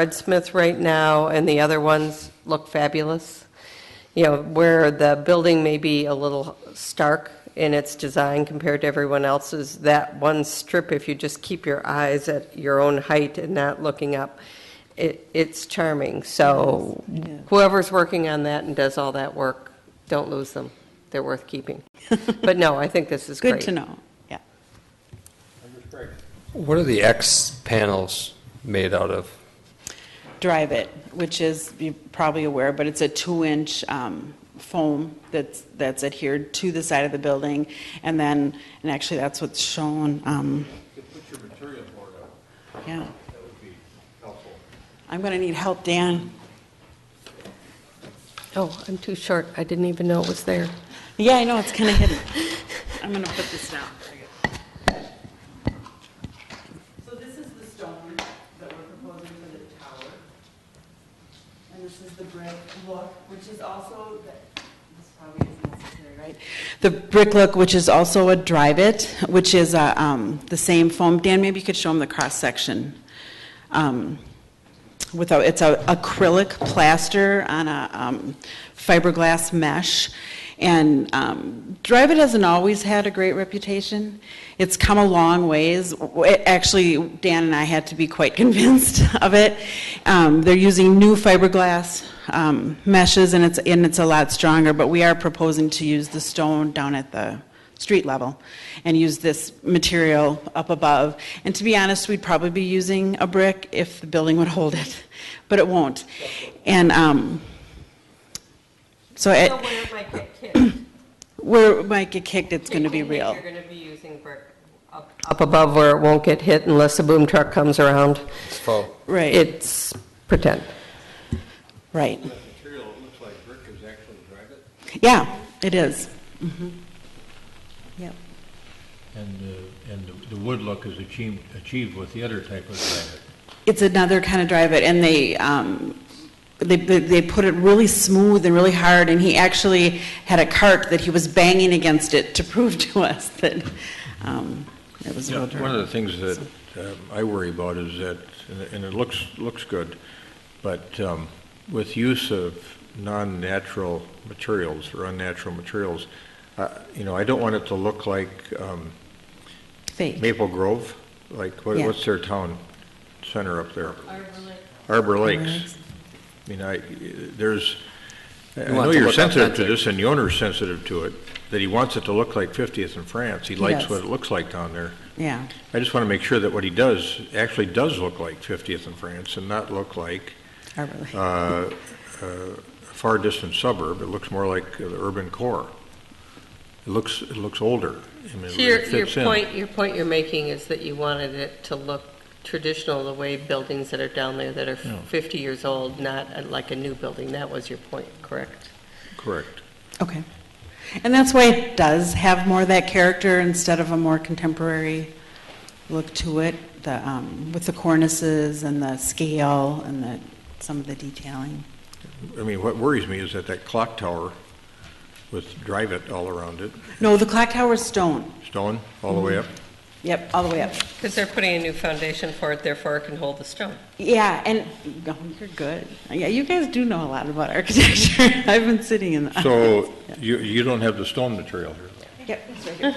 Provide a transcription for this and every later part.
Breadsmith right now, and the other ones look fabulous. You know, where the building may be a little stark in its design compared to everyone else's, that one strip, if you just keep your eyes at your own height and not looking up, it, it's charming. So whoever's working on that and does all that work, don't lose them. They're worth keeping. But no, I think this is great. Good to know, yeah. What are the X panels made out of? Drive It, which is, you're probably aware, but it's a two-inch um, foam that's, that's adhered to the side of the building, and then, and actually, that's what's shown. um, Yeah. I'm going to need help, Dan. Oh, I'm too short. I didn't even know it was there. Yeah, I know, it's kind of hidden. I'm going to put this down. So this is the stone that we're proposing for the tower. And this is the brick look, which is also, this probably isn't necessary, right? The brick look, which is also a drive-it, which is uh, um, the same foam. Dan, maybe you could show them the cross-section. Um, without, it's a acrylic plaster on a um, fiberglass mesh. And um, Drive It hasn't always had a great reputation. It's come a long ways. W- it- Actually, Dan and I had to be quite convinced of it. Um, They're using new fiberglass um, meshes, and it's, and it's a lot stronger, but we are proposing to use the stone down at the street level and use this material up above. And to be honest, we'd probably be using a brick if the building would hold it, but it won't. And um, so it, where it might get kicked. where it might get kicked, it's going to be Kicking means real. You're going to be using brick up up above where it won't get hit unless the boom truck comes around. Oh, Right, It's pretend. right. That material, it looks like brick is actually drive it. Yeah, it is. Mhm. Yep. And, uh, and the- the wood look is achieved, achieved with the other type of granite. It's another kind of drive it, and they, um, they, they they put it really smooth and really hard, and he actually had a cart that he was banging against it to prove to us that, um, it was real One of the drive. things that um, I worry about is that, and it- and it looks, looks good, but um, with use of non-natural materials or unnatural materials, uh, you know, I don't want it to look like um, Fake. Maple Grove, like, what- Yeah. what's their town center up there? Arbor Lakes. I mean, I, there's, I want know it to you're look sensitive to authentic. this, and the owner's sensitive to it, that he wants it to look like 50th in France. He likes does. what it looks like down there. Yeah, I just want to make sure that what he does actually does look like 50th in France and not look like Arbor Lake. uh, uh, a far distant suburb. It looks more like the urban core. It looks, it looks older. I mean, it So your, really your fits in. point, your point you're making is that you wanted it to look traditional, the way buildings that are down there that are 50 years old, not uh, like a new building. That was your point, correct? Correct. Okay. And that's why it does have more of that character instead of a more contemporary look to it, the, um, with the cornices and the scale and the, some of the detailing. I mean, what worries me is that that clock tower with drive it all around it, No, the clock tower is stone. stone all Mm-hmm. the way up. Yep, all the way up. Because they're putting a new foundation for it, therefore it can hold the stone. Yeah, and, oh, you're good. Yeah, you guys do know a lot about architecture. I've been sitting in the. So you, you don't have the stone material here. Yep, it's right here.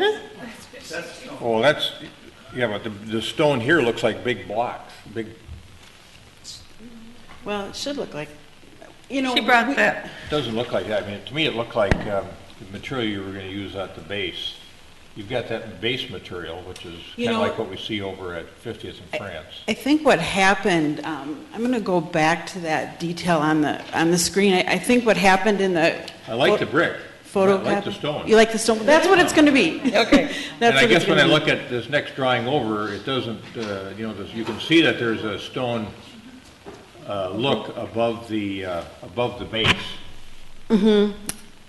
Mm-hmm. Oh, that's, yeah, but the, the stone here looks like big blocks, big, Well, it should look like, you know. She brought we- that. doesn't look like that. I mean, to me, it looked like um, the material you were going to use at the base. You've got that base material, which is You kind of know- like what we see over at 50th in France. I think what happened, um, I'm going to go back to that detail on the, on the screen. I I think what happened in the. I like the brick. I Photocopy. like the stone. You like the stone? That's what it's going to be. Okay. That's And what I it's guess when I gonna be. look at this next drawing over, it doesn't, uh, you know, there's- you can see that there's a stone uh, look above the, uh, above the base.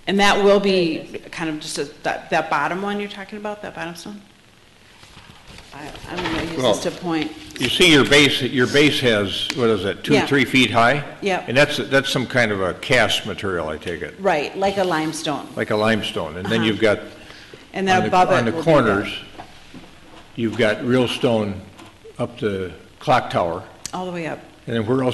And that will be kind of just a, that, that bottom one you're talking about, that bottom stone? I, I'm going to use Well- this to point. You see your base, your base has, what is it, two, Yeah. three feet high? Yeah. And that's, that's some kind of a cast material, I take it, Right, like a limestone. like a limestone. And then you've got, Uh-huh. And on then the- above it on the will be corners, that, you've got real stone up the clock tower. All the way up. And then where else